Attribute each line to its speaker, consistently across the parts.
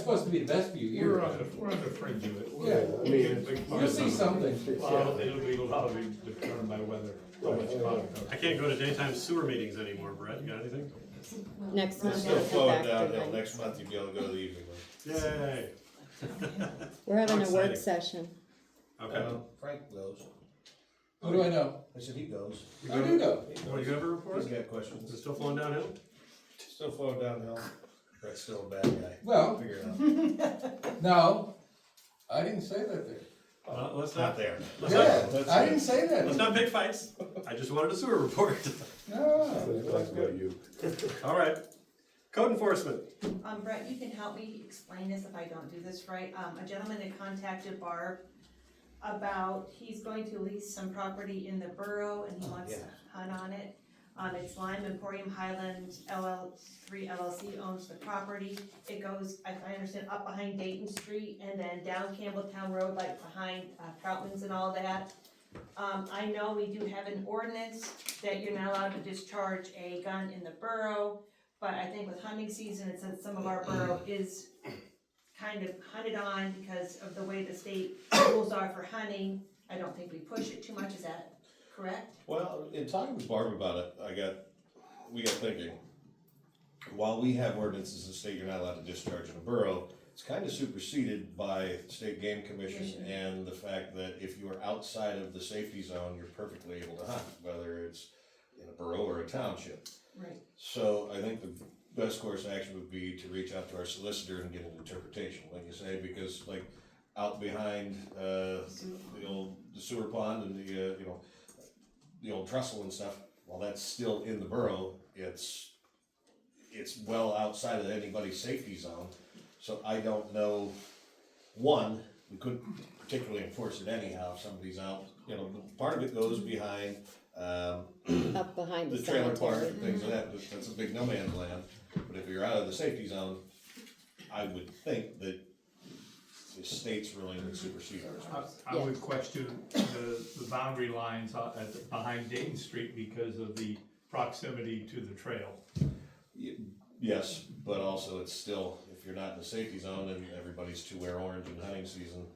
Speaker 1: supposed to be the best view
Speaker 2: We're
Speaker 1: here.
Speaker 2: on the, we're on the fringe of it. We're-
Speaker 1: Yeah,
Speaker 2: we'll
Speaker 3: I mean,
Speaker 2: get big
Speaker 1: You'll
Speaker 2: parts
Speaker 1: see
Speaker 2: of it.
Speaker 1: something.
Speaker 2: Well, it'll be a lot of it determined by weather,
Speaker 1: Oh,
Speaker 2: how much product comes.
Speaker 4: I can't go to daytime sewer meetings anymore, Brett, you got anything?
Speaker 5: Next
Speaker 6: We're
Speaker 5: month.
Speaker 6: still
Speaker 5: we'll come
Speaker 6: flowing
Speaker 5: back to
Speaker 6: downhill,
Speaker 5: that.
Speaker 6: next month you'll be able to go to the evening one.
Speaker 4: Yay,
Speaker 5: We're having a work
Speaker 4: Exciting.
Speaker 5: session.
Speaker 4: okay.
Speaker 7: Um, Frank goes.
Speaker 1: Who do I know?
Speaker 7: I said he goes.
Speaker 4: You
Speaker 1: I do
Speaker 4: go,
Speaker 1: know.
Speaker 4: what, you ever report?
Speaker 7: He's
Speaker 4: Is
Speaker 7: got questions.
Speaker 4: it still flowing downhill?
Speaker 7: Still flowing downhill. Brett's still a bad guy.
Speaker 1: Well,
Speaker 7: Figure it out.
Speaker 1: no, I didn't say that there.
Speaker 4: Uh, let's
Speaker 7: Not
Speaker 4: not,
Speaker 7: there.
Speaker 4: let's not,
Speaker 1: Yeah, I didn't say that.
Speaker 4: let's not pick fights, I just wanted a sewer report.
Speaker 1: No.
Speaker 3: That's about you.
Speaker 4: All right, code enforcement,
Speaker 8: Um, Brett, you can help me explain this if I don't do this right. Um, a gentleman had contacted Barb about, he's going to lease some property in the borough and he wants to hunt on it. Um, it's Lime Emporium Highland LL, three LLC owns the property. It goes, I I understand, up behind Dayton Street and then down Campbelltown Road, like behind uh, Troutman's and all that. Um, I know we do have an ordinance that you're not allowed to discharge a gun in the borough, but I think with hunting season, it says some of our borough is kind of hunted on because of the way the state rules are for hunting. I don't think we push it too much, is that correct?
Speaker 6: Well, in talking with Barb about it, I got, we got thinking, while we have ordinances in the state, you're not allowed to discharge in a borough, it's kind of superseded by state game commission
Speaker 8: Commission.
Speaker 6: and the fact that if you are outside of the safety zone, you're perfectly able to hunt, whether it's in a borough or a township.
Speaker 8: Right.
Speaker 6: So I think the best course of action would be to reach out to our solicitor and get an interpretation, like you say, because like out behind, uh, the old the sewer pond and the, uh, you know, the old trestle and stuff, while that's still in the borough, it's, it's well outside of anybody's safety zone. So I don't know, one, we couldn't particularly enforce it anyhow, if somebody's out, you know, part of it goes behind, um,
Speaker 5: Up behind the
Speaker 6: the trailer park
Speaker 5: cemetery.
Speaker 6: and things like that, that's- that's a big no man's land, but if you're out of the safety zone, I would think that the state's ruling would supersede ours.
Speaker 2: I, I would question the, the boundary lines on- at, behind Dayton Street because of the proximity to the trail.
Speaker 6: Yes, but also it's still, if you're not in the safety zone and everybody's to wear orange in hunting season,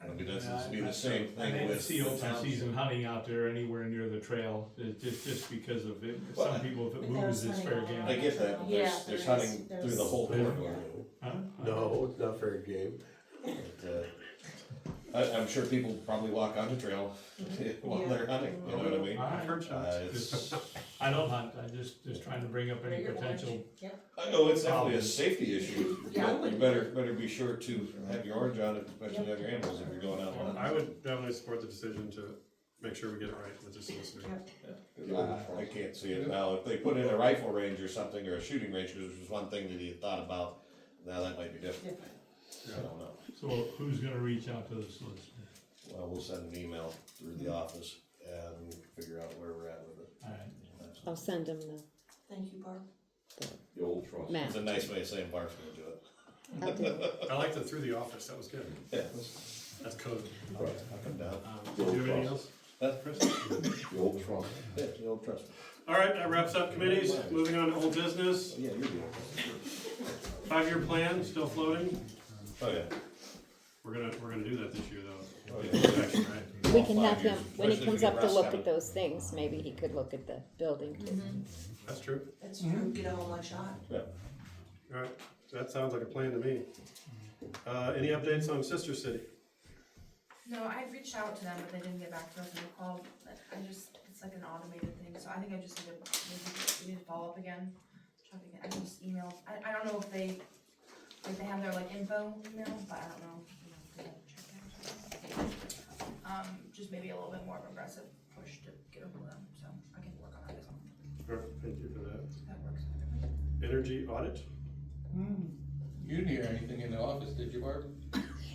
Speaker 6: I mean, that's, it'd be the same
Speaker 2: I
Speaker 6: thing
Speaker 2: didn't
Speaker 6: with.
Speaker 2: see
Speaker 6: the
Speaker 2: open
Speaker 6: township.
Speaker 2: season hunting out there anywhere near the trail, it, just, just because of it,
Speaker 6: Well,
Speaker 2: some people, if it
Speaker 8: But
Speaker 2: moves,
Speaker 8: there's
Speaker 2: it's fair
Speaker 8: hunting
Speaker 2: game.
Speaker 8: on
Speaker 6: I get that, but
Speaker 8: Yeah,
Speaker 6: there's, there's
Speaker 8: there is-
Speaker 6: hunting through
Speaker 8: there's-
Speaker 6: the whole corridor.
Speaker 2: Huh?
Speaker 3: No, it's not fair game.
Speaker 6: but, uh, I, I'm sure people probably walk on the trail while
Speaker 8: Yeah.
Speaker 6: they're hunting, you know what I mean?
Speaker 2: I-
Speaker 4: I've heard shots.
Speaker 6: Uh, it's,
Speaker 2: I don't hunt, I'm just, just trying to bring up any
Speaker 8: Bigger
Speaker 2: potential,
Speaker 8: orange. Yep.
Speaker 6: I know it's definitely a safety issue.
Speaker 8: Yeah, I
Speaker 6: but You
Speaker 8: would-
Speaker 6: better, better be sure to have your orange on, especially have your animals if you're going out.
Speaker 4: Well,
Speaker 6: hunting.
Speaker 4: I would definitely support the decision to make sure we get it right with the solicitor.
Speaker 6: I I can't see it now. If they put in a rifle range or something, or a shooting range, which was one thing that he had thought about, now that might be different. I don't know.
Speaker 2: so who's gonna reach out to the solicitor?
Speaker 6: Well, we'll send an email through the office and figure out where we're at with it.
Speaker 2: Alright,
Speaker 5: I'll send them the
Speaker 8: Thank you, Barb.
Speaker 3: The old trust.
Speaker 5: map.
Speaker 6: It's a nice way of saying Bart's gonna do it.
Speaker 5: I'll do it.
Speaker 4: I liked the through the office, that was good,
Speaker 6: Yeah.
Speaker 4: that's code.
Speaker 6: Up and down.
Speaker 4: Um, Do you have anything else,
Speaker 6: That's
Speaker 4: Chris?
Speaker 3: The old trust.
Speaker 6: Yeah, you'll trust me.
Speaker 4: All right, that wraps up committees, moving on to old business,
Speaker 6: Yeah, you're doing
Speaker 4: five-year plan, still floating.
Speaker 6: Oh, yeah.
Speaker 4: We're gonna, we're gonna do that this year though.
Speaker 6: Oh, yeah.
Speaker 4: Protection, right?
Speaker 5: We can have him, when
Speaker 6: Especially
Speaker 5: he
Speaker 6: if
Speaker 5: comes
Speaker 6: you
Speaker 5: up to
Speaker 6: rest
Speaker 5: look
Speaker 6: have
Speaker 5: at
Speaker 6: it.
Speaker 5: those things, maybe he could look at the building too.
Speaker 4: That's true,
Speaker 8: That's true, get a whole one shot.
Speaker 4: all right, that sounds like a plan to me. Uh, any updates on Sister City?
Speaker 9: No, I reached out to them, but they didn't get back to us, and I called, but I just, it's like an automated thing, so I think I just need to, maybe, we need to follow up again. Try to get, I can just email, I, I don't know if they, if they have their like info email, but I don't know. you know, if they have checked it or something. Um, just maybe a little bit more of an aggressive push to get over them, so I can work on that as well,
Speaker 4: All right, Thank you for that.
Speaker 9: if that works. for everybody.
Speaker 4: Energy audit?
Speaker 1: Hmm. You didn't hear anything in the office, did you, Barb?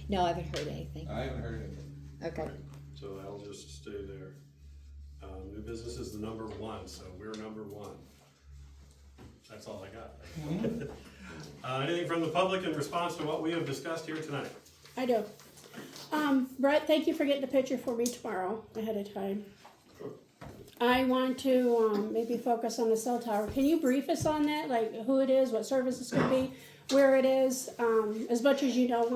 Speaker 5: No, I haven't heard anything.
Speaker 1: I haven't heard anything.
Speaker 5: Okay.
Speaker 4: So I'll just stay there. Um, new business is the number one, so we're number one. That's all I got. Uh, anything from the public in response to what we have discussed here tonight?
Speaker 10: I do. Um, Brett, thank you for getting the picture for me tomorrow ahead of time. I want to um, maybe focus on the cell tower. Can you brief us on that, like who it is, what service it's going to be? where it is. Um, as much as you know,